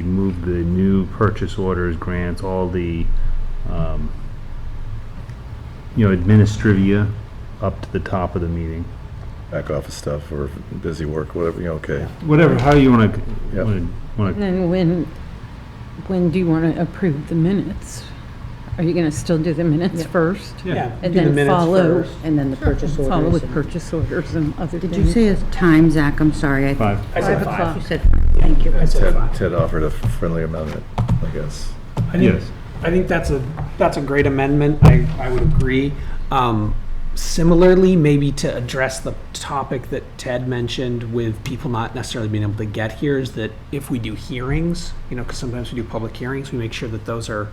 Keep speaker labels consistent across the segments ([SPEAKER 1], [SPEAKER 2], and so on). [SPEAKER 1] move the new purchase orders, grants, all the, um, you know, administrivia up to the top of the meeting.
[SPEAKER 2] back office stuff or busy work, whatever, you know, okay.
[SPEAKER 1] Whatever, how you want
[SPEAKER 2] Yep.
[SPEAKER 1] to, want to,
[SPEAKER 3] And when, when do you want to approve the minutes? Are you going to still do the minutes first?
[SPEAKER 1] yeah.
[SPEAKER 3] And
[SPEAKER 4] do the
[SPEAKER 3] then
[SPEAKER 4] minutes
[SPEAKER 3] follow-
[SPEAKER 4] first, And then the purchase orders.
[SPEAKER 3] Follow with
[SPEAKER 4] and-
[SPEAKER 3] purchase orders and other things?
[SPEAKER 5] Did you say a time, Zach? I'm sorry. I-
[SPEAKER 1] Five.
[SPEAKER 6] I said
[SPEAKER 5] You
[SPEAKER 6] five.
[SPEAKER 5] said, thank you.
[SPEAKER 6] said
[SPEAKER 2] Ted,
[SPEAKER 6] five.
[SPEAKER 2] Ted offered a friendly amendment, I guess.
[SPEAKER 6] I think-
[SPEAKER 1] Yes.
[SPEAKER 6] I think that's a, that's a great amendment. I, I would agree. Um, Similarly, maybe to address the topic that Ted mentioned with people not necessarily being able to get here is that if we do hearings, you know, because sometimes we do public hearings, we make sure that those are,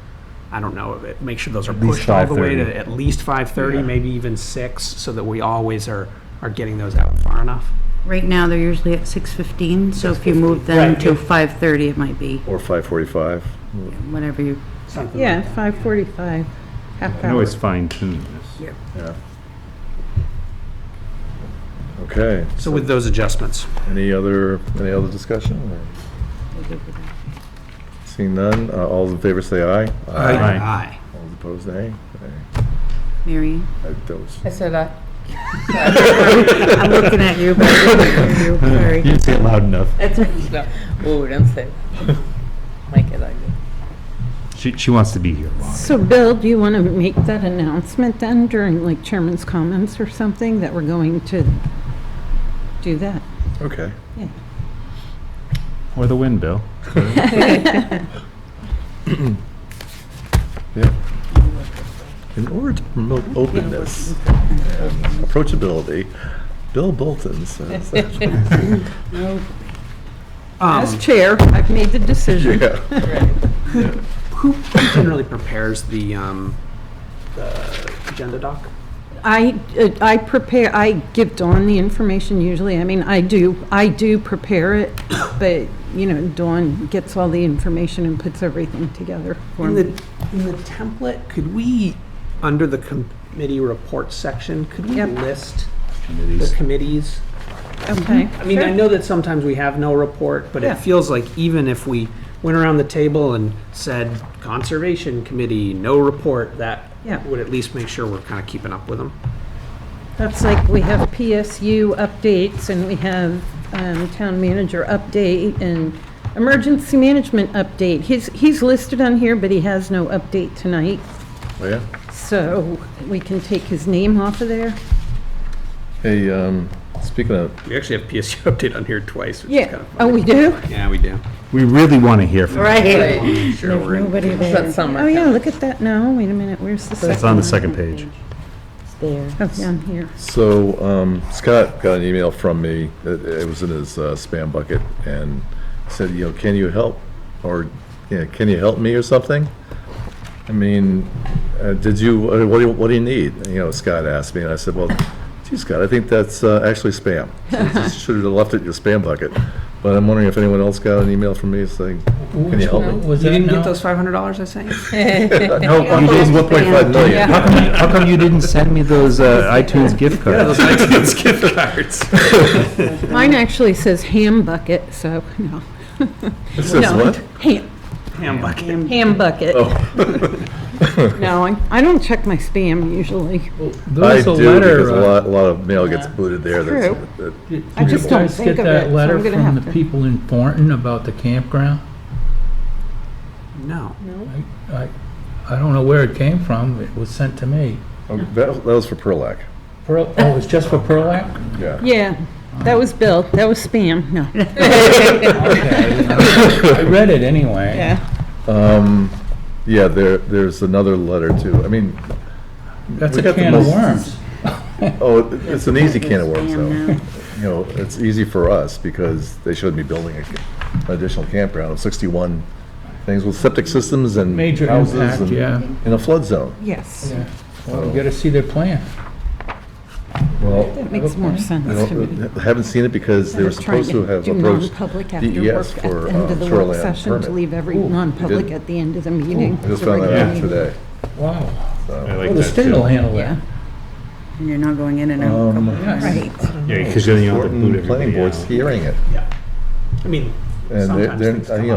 [SPEAKER 6] I don't know, it- make sure those are
[SPEAKER 1] least
[SPEAKER 6] pushed all the way
[SPEAKER 1] 5:30.
[SPEAKER 6] to at least 5:30, maybe even 6, so that we always are, are getting those out far enough.
[SPEAKER 5] Right now, they're usually at 6:15, so if you move them
[SPEAKER 6] Right.
[SPEAKER 5] to 5:30, it might be
[SPEAKER 2] Or 5:45.
[SPEAKER 5] whatever you,
[SPEAKER 6] Something like
[SPEAKER 3] Yeah, 5:45, half
[SPEAKER 1] I
[SPEAKER 3] hour.
[SPEAKER 1] always fine tune this.
[SPEAKER 2] Okay.
[SPEAKER 6] So with those adjustments.
[SPEAKER 2] Any other, any other discussion? or- Seeing none, uh, all in favor say aye.
[SPEAKER 1] Aye.
[SPEAKER 6] Aye.
[SPEAKER 2] All opposed, nay.
[SPEAKER 5] Mary?
[SPEAKER 2] Aye. I- that was-
[SPEAKER 4] I said aye.
[SPEAKER 5] I'm looking at you, but I didn't hear you,
[SPEAKER 1] You
[SPEAKER 5] sorry.
[SPEAKER 1] didn't say it loud enough.
[SPEAKER 4] That's right. No. Whoa, don't say. Make it like
[SPEAKER 1] She, she wants to be here.
[SPEAKER 3] So Bill, do you want to make that announcement then during like chairman's comments or something that we're going to do that?
[SPEAKER 2] Okay.
[SPEAKER 1] Or the wind, Bill.
[SPEAKER 2] In order to promote openness and approachability, Bill Bolton says.
[SPEAKER 3] As chair, I've made the decision.
[SPEAKER 2] Yeah.
[SPEAKER 6] Who who generally prepares the, um, the agenda doc?
[SPEAKER 3] I, uh, I prepare, I give Dawn the information usually, I mean, I do, I do prepare it, but, you know, Dawn gets all the information and puts everything together for
[SPEAKER 6] In
[SPEAKER 3] me.
[SPEAKER 6] the, in the template, could we, under the committee report section, could we
[SPEAKER 3] Yep.
[SPEAKER 6] list the committees?
[SPEAKER 3] Okay.
[SPEAKER 6] I mean, I know that sometimes we have no report, but
[SPEAKER 3] Yeah.
[SPEAKER 6] it feels like even if we went around the table and said Conservation Committee, no report, that
[SPEAKER 3] Yeah.
[SPEAKER 6] would at least make sure we're kind of keeping up with them.
[SPEAKER 3] That's like, we have PSU updates, and we have um, town manager update, and emergency management update. He's, he's listed on here, but he has no update tonight,
[SPEAKER 2] Oh, yeah?
[SPEAKER 3] so we can take his name off of there.
[SPEAKER 2] Hey, um, speaking of,
[SPEAKER 6] We actually have PSU update on here twice, which is kind
[SPEAKER 3] Yeah,
[SPEAKER 6] of
[SPEAKER 3] oh,
[SPEAKER 6] funny.
[SPEAKER 3] we do?
[SPEAKER 6] Yeah, we do.
[SPEAKER 1] We really want to hear from you.
[SPEAKER 5] Right.
[SPEAKER 6] Sure, we're in.
[SPEAKER 5] Nobody
[SPEAKER 4] that
[SPEAKER 5] there.
[SPEAKER 4] summer.
[SPEAKER 3] Oh, yeah, look at that, no, wait a minute, where's the second?
[SPEAKER 1] It's on the second page.
[SPEAKER 4] It's there.
[SPEAKER 3] Oh, down here.
[SPEAKER 2] So um, Scott got an email from me, it it was in his uh, spam bucket, and said, you know, can you help? Or, you know, can you help me or something? I mean, uh, did you, uh, what do you, what do you need? And, You know, Scott asked me, and I said, well, gee, Scott, I think that's uh, actually spam. Should have left it in your spam bucket. But I'm wondering if anyone else got an email from me saying, can you help me?
[SPEAKER 6] You didn't get those five hundred dollars I sent you?
[SPEAKER 1] No, you didn't.
[SPEAKER 2] One point five million.
[SPEAKER 1] How come, how come you didn't send me those uh, iTunes gift cards?
[SPEAKER 3] Mine actually says ham bucket, so, no.
[SPEAKER 2] It says
[SPEAKER 3] No,
[SPEAKER 2] what? Oh.
[SPEAKER 3] Ham,
[SPEAKER 6] Ham bucket.
[SPEAKER 3] ham bucket. No, I, I don't check my spam usually.
[SPEAKER 2] I
[SPEAKER 7] There was
[SPEAKER 2] do,
[SPEAKER 7] a
[SPEAKER 2] because
[SPEAKER 7] letter,
[SPEAKER 2] a
[SPEAKER 7] uh,
[SPEAKER 2] lot, a lot of mail gets booted there. that's-
[SPEAKER 3] True.
[SPEAKER 2] that-
[SPEAKER 7] did
[SPEAKER 3] I
[SPEAKER 7] you
[SPEAKER 3] just don't
[SPEAKER 7] guys
[SPEAKER 3] think of
[SPEAKER 7] get
[SPEAKER 3] it, so
[SPEAKER 7] that
[SPEAKER 3] I'm
[SPEAKER 7] letter
[SPEAKER 3] gonna
[SPEAKER 7] from
[SPEAKER 3] have to-
[SPEAKER 7] the people in Thornton about the campground?
[SPEAKER 6] No.
[SPEAKER 7] I, I I don't know where it came from, it was sent to me.
[SPEAKER 2] oh, That that was for Perlac,
[SPEAKER 7] Pearl, oh, it's just for Perlac?
[SPEAKER 2] yeah.
[SPEAKER 3] Yeah, that was Bill, that was spam, no.
[SPEAKER 7] Okay, I read it anyway.
[SPEAKER 3] Yeah,
[SPEAKER 2] Yeah, there, there's another letter too. I mean,
[SPEAKER 7] That's
[SPEAKER 2] We
[SPEAKER 7] a
[SPEAKER 2] got the
[SPEAKER 7] can of
[SPEAKER 2] most-
[SPEAKER 7] worms.
[SPEAKER 2] oh, it- it's an easy can of worms
[SPEAKER 5] Spam
[SPEAKER 2] though.
[SPEAKER 5] now.
[SPEAKER 2] You know, it's easy for us because they showed me building a ca- an additional campground of 61 things with septic systems and
[SPEAKER 7] Major
[SPEAKER 2] houses
[SPEAKER 7] impact,
[SPEAKER 2] and
[SPEAKER 7] yeah.
[SPEAKER 2] in a flood zone.
[SPEAKER 3] yes,
[SPEAKER 7] Yeah. Well, you gotta see their plan.
[SPEAKER 2] Well,
[SPEAKER 3] that makes more
[SPEAKER 2] I
[SPEAKER 3] sense to me.
[SPEAKER 2] don't- I haven't seen it because they were supposed to have approached
[SPEAKER 3] public
[SPEAKER 2] DES for uh, shoreline
[SPEAKER 3] To
[SPEAKER 2] permit.
[SPEAKER 3] leave every non-public
[SPEAKER 2] did?
[SPEAKER 3] at the end of the meeting.
[SPEAKER 2] I just found that out today.
[SPEAKER 7] Wow.
[SPEAKER 1] I like
[SPEAKER 7] Well, the
[SPEAKER 1] that,
[SPEAKER 7] state
[SPEAKER 1] too.
[SPEAKER 7] will handle
[SPEAKER 3] Yeah.
[SPEAKER 7] that.
[SPEAKER 5] And you're not going in and out.
[SPEAKER 2] Um,
[SPEAKER 5] Right.
[SPEAKER 1] Yeah, because then you don't have to boot
[SPEAKER 2] Planning
[SPEAKER 1] everybody out.
[SPEAKER 2] board's hearing it.
[SPEAKER 6] I mean,
[SPEAKER 2] And they're-
[SPEAKER 6] sometimes
[SPEAKER 2] they're,
[SPEAKER 6] things
[SPEAKER 2] uh,
[SPEAKER 6] come
[SPEAKER 2] you know,